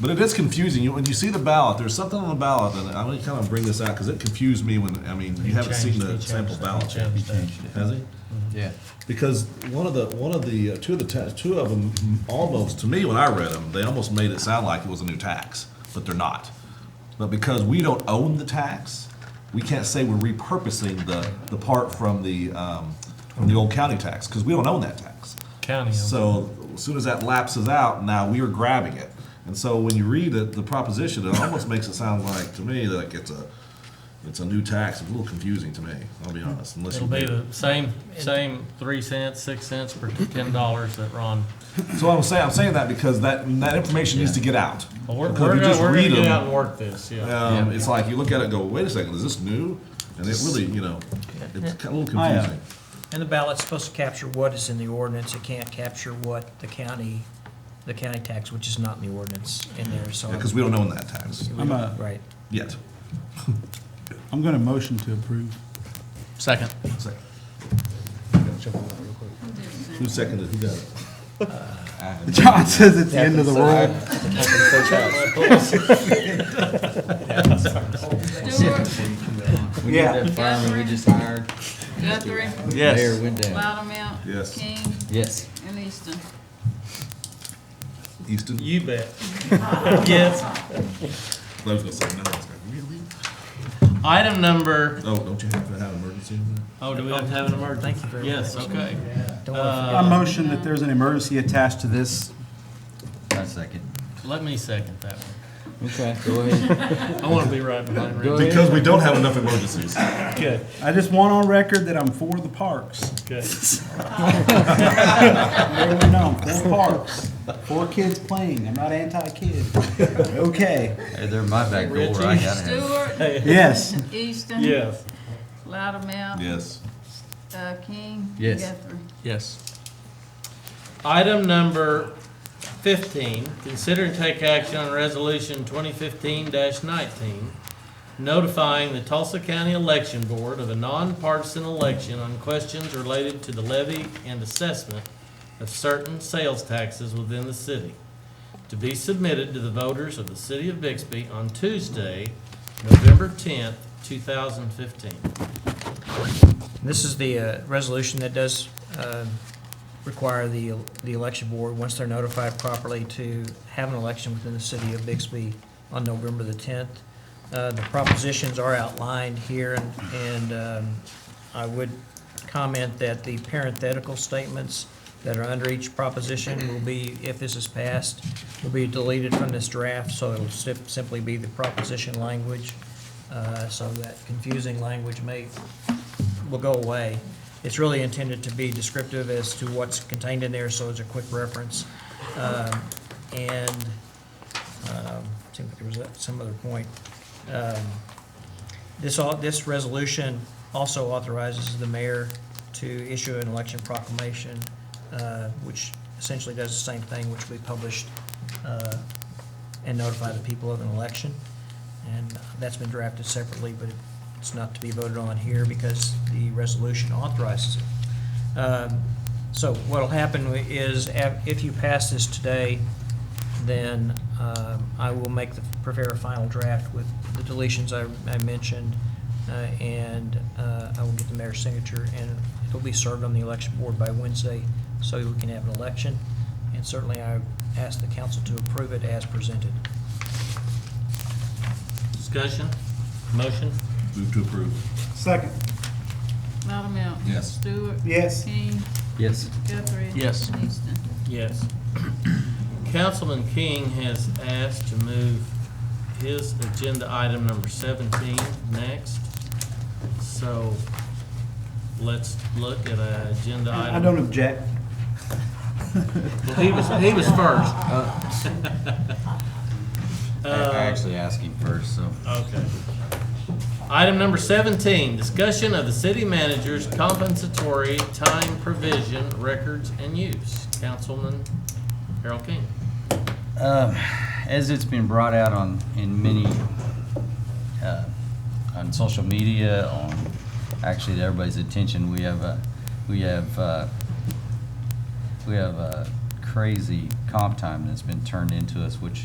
But it is confusing. You- When you see the ballot, there's something on the ballot, and I'm gonna kind of bring this out, because it confused me when, I mean, you haven't seen the sample ballot yet. Has he? Yeah. Because one of the, one of the, uh, two of the, ta- two of them, almost, to me, when I read them, they almost made it sound like it was a new tax, but they're not. But because we don't own the tax, we can't say we're repurposing the, the part from the, um, from the old county tax, because we don't own that tax. County. So as soon as that lapses out, now we are grabbing it. And so when you read it, the proposition, it almost makes it sound like, to me, like it's a, it's a new tax. It's a little confusing to me, I'll be honest, unless It'll you. be the same, same three cents, six cents for ten dollars that Ron. So I'm saying, I'm saying that because that, that information needs to get out. Well, We're, Because if you we're gonna, just we're read gonna get them, out and work this, yeah. Um, it's like you look at it and go, wait a second, is this new? And it really, you know, it's kind of a little Oh, I, uh, confusing. And the ballot's supposed to capture what is in the ordinance, it can't capture what the county, the county tax, which is not in the ordinance in there, so. Because we don't own that tax I'm a, Right. yet. I'm gonna motion to approve. Second. Second. Who seconded, who got it? John says it's the end of the world. Stewart, We need that fireman we just hired. Guthrie, Yes. Mayor Window. Loudmout. Yes. King, Yes. and Easton. Easton? You bet. Yes. I was gonna say, no, it's like, really? Item number, Oh, don't you have to have emergency in there? Oh, do we have to have an emergency? Thank you very much. Yes, okay. Don't wanna Uh, I motion that there's an emergency attached to this. I second. Let me second that one. Okay. Go ahead. I wanna be right behind Go Randy. ahead. Because we don't have enough emergencies. Okay, I just want on record that I'm for the parks. okay. Everyone know, I'm for parks. For kids playing. I'm not anti-kid. Okay. Hey, they're my back door. I gotta have. Stewart, Yes. Easton. Yes. Loudmout, Yes. uh, King. Yes. Guthrie. yes. Item number fifteen, consider and take action on resolution twenty fifteen nineteen, notifying the Tulsa County Election Board of a nonpartisan election on questions related to the levy and assessment of certain sales taxes within the city, to be submitted to the voters of the city of Bixby on Tuesday, November tenth, two thousand fifteen. This is the uh, resolution that does uh, require the, the election board, once they're notified properly, to have an election within the city of Bixby on November the 10th. Uh, The propositions are outlined here, and- and um, I would comment that the parenthetical statements that are under each proposition will be, if this is passed, will be deleted from this draft, so it'll sim- simply be the proposition language. Uh, So that confusing language may will go away. It's really intended to be descriptive as to what's contained in there, so it's a quick reference. Um, And, um, seemed like there was some other point. Um, This, au- this resolution also authorizes the mayor to issue an election proclamation, uh, which essentially does the same thing, which we published, uh, and notify the people of an election. And that's been drafted separately, but it's not to be voted on here because the resolution authorizes it. Um, So what'll happen is, af- if you pass this today, then um, I will make the, prepare a final draft with the deletions I, I mentioned, uh, and uh, I will get the mayor's signature, and it'll be served on the election board by Wednesday, so we can have an election. And certainly, I ask the council to approve it as presented. Discussion, motion? Move to approve. Second. Loudmout. Yes. Stewart. Yes. King, Yes. Guthrie. Yes. Easton. Yes. Councilman King has asked to move his agenda item number seventeen next. So let's look at a agenda item. I don't object. Well, He was, he was first. Uh, I I actually asked him first, so. Uh, Okay. Item number seventeen, discussion of the city manager's compensatory time provision, records and use. Councilman Harold King. Um, As it's been brought out on, in many, uh, on social media, on, actually to everybody's attention, we have a, we have, uh, we have a crazy comp time that's been turned into us, which